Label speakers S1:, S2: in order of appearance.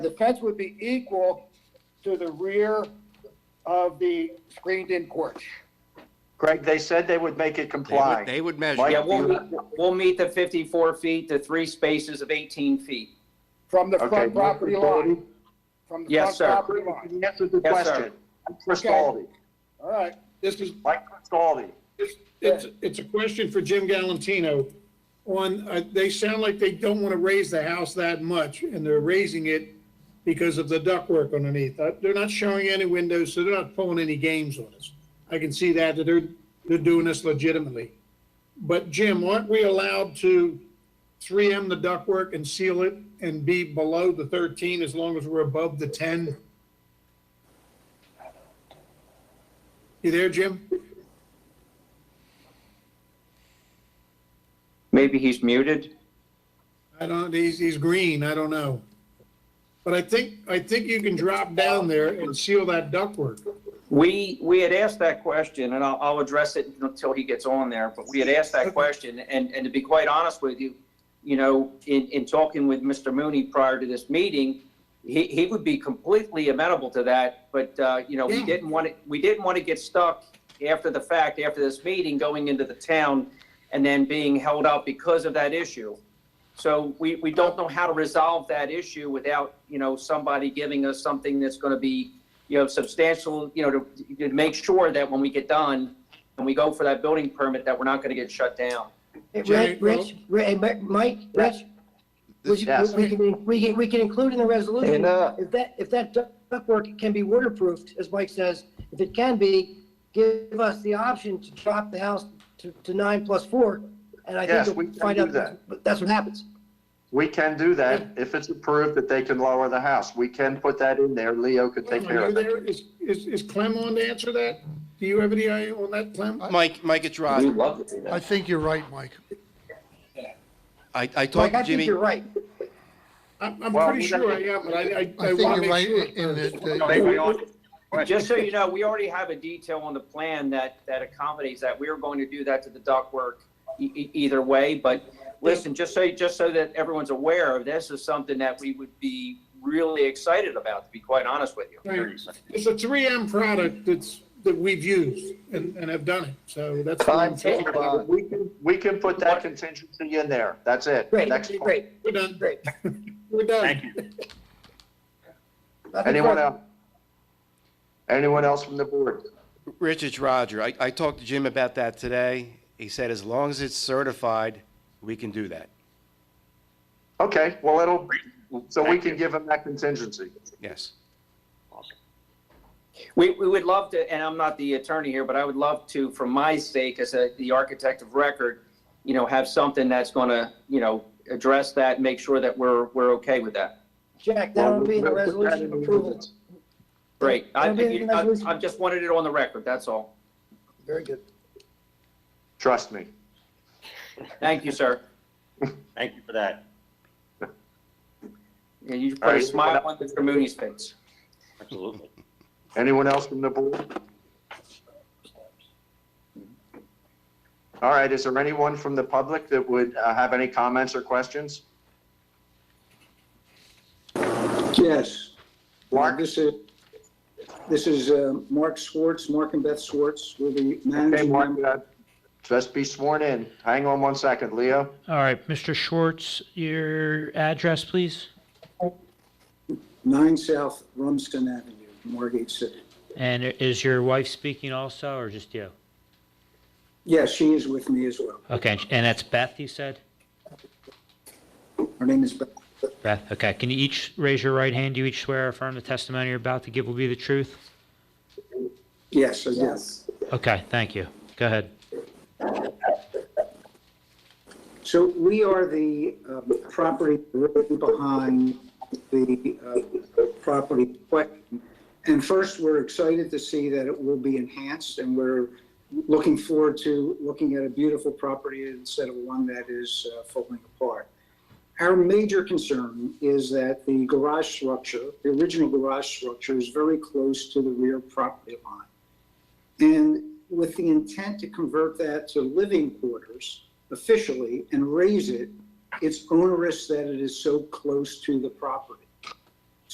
S1: The fence would be equal to the rear of the screened-in porch.
S2: Greg, they said they would make it
S3: They would,
S2: comply.
S3: they would measure.
S2: Mike,
S4: Yeah,
S3: it.
S4: we'll, meet- we'll meet the 54 feet to three spaces of 18 feet.
S1: From the
S2: Okay,
S1: front property
S2: Mr.
S1: line. From the front
S4: Yes, sir.
S1: property line.
S2: He answered the
S4: Yes, sir.
S2: question. Cristaldi,
S1: All right.
S5: This is,
S2: Mike Cristaldi.
S5: it's- it's, it's a question for Jim Galantino. On, uh, they sound like they don't want to raise the house that much, and they're raising it because of the ductwork underneath. Uh, They're not showing any windows, so they're not pulling any games on us. I can see that, that they're, they're doing this legitimately. But Jim, aren't we allowed to 3M the ductwork and seal it and be below the 13 as long as we're above the 10? You there, Jim?
S4: Maybe he's muted.
S5: I don't, he's, he's green, I don't know. But I think, I think you can drop down there and seal that ductwork.
S4: We, we had asked that question, and I'll, I'll address it until he gets on there, but we had asked that question, and, and to be quite honest with you, you know, in, in talking with Mr. Mooney prior to this meeting, he, he would be completely amenable to that, but, uh, you know, we
S5: Yeah.
S4: didn't want to, we didn't want to get stuck after the fact, after this meeting, going into the town and then being held up because of that issue. So we, we don't know how to resolve that issue without, you know, somebody giving us something that's going to be, you know, substantial, you know, to, to make sure that when we get done and we go for that building permit, that we're not going to get shut down.
S6: Hey,
S5: Jerry,
S6: Rich, Rich, Ri- hey, Mi- Mike, Rich, we
S3: This-
S6: can, we can, we can- we can include in the resolution,
S2: And, uh,
S6: if that, if that duct- ductwork can be waterproofed, as Mike says, if it can be, give us the option to drop the house to, to nine plus four, and I
S2: Yes,
S6: think
S2: we
S6: we'll
S2: can
S6: find
S2: do
S6: out,
S2: that.
S6: but that's what happens.
S2: We can do that if it's approved that they can lower the house. We can put that in there. Leo could take care
S5: Are you
S2: of it.
S5: there? Is, is, is Clem on to answer that? Do you have any eye on that, Clem?
S3: Mike, Mike, it's Rod.
S4: love to do
S7: I think you're right, Mike.
S3: I, I
S6: Mike,
S3: talked
S6: I
S3: to
S6: think
S3: Jimmy.
S6: you're right.
S5: I'm, I'm
S2: Well,
S5: pretty
S2: we-
S5: sure I am, but I, I,
S7: I
S5: I
S7: think
S5: want to
S7: you're right
S5: make
S7: in
S5: sure.
S7: that,
S2: No,
S7: that
S2: they- we all-
S4: Just so you know, we already have a detail on the plan that, that accommodates that. We are going to do that to the ductwork e- e- either way, but listen, just so, just so that everyone's aware of, this is something that we would be really excited about, to be quite honest with you.
S5: Right. It's a 3M product that's, that we've used and, and have done it, so that's.
S2: Fine, We can- we can put that contingency in there. That's it.
S6: Great,
S2: Next one.
S6: great,
S5: We're done,
S6: great.
S5: we're done.
S2: Thank you.
S6: Nothing
S2: Anyone
S6: further.
S2: else? Anyone else from the board?
S3: Rich, it's Roger. I, I talked to Jim about that today. He said as long as it's certified, we can do that.
S2: Okay, well, it'll, so we can give them that contingency.
S3: Yes.
S4: We, we would love to, and I'm not the attorney here, but I would love to, for my sake, as a, the architect of record, you know, have something that's gonna, you know, address that, make sure that we're, we're okay with that.
S6: Jack, that'll be in the resolution of approval.
S4: Great. I,
S6: That'll be in the
S4: I,
S6: resolution.
S4: I just wanted it on the record, that's all.
S6: Very good.
S2: Trust me.
S4: Thank you, sir.
S8: Thank you for that.
S4: Yeah, you put
S2: All
S4: a
S2: right.
S4: smile on Mr. Mooney's face.
S8: Absolutely.
S2: Anyone else from the board? All right, is there anyone from the public that would uh, have any comments or questions?
S9: Yes.
S2: Mark?
S9: This is, this is uh, Mark Schwartz, Mark and Beth Schwartz, we're the
S2: Okay,
S9: managing
S2: Mark,
S9: member.
S2: uh, just be sworn in. Hang on one second, Leo.
S10: All right, Mr. Schwartz, your address, please,
S9: Nine South Rumsden Avenue, Margate City.
S10: and is your wife speaking also, or just you?
S9: Yes, she is with me as well.
S10: Okay, and that's Beth, you said?
S9: Her name is Beth.
S10: Beth, okay, can you each raise your right hand, do you each swear or affirm the testimony you're about to give will be the truth?
S9: Yes, I do.
S10: Okay, thank you, go ahead.
S9: So we are the um, property right behind the uh, property. in question. And first, we're excited to see that it will be enhanced, and we're looking forward to looking at a beautiful property instead of one that is uh, falling apart. Our major concern is that the garage structure, the original garage structure, is very close to the rear property line. And with the intent to convert that to living quarters officially and raise it, it's onerous that it is so close to the property.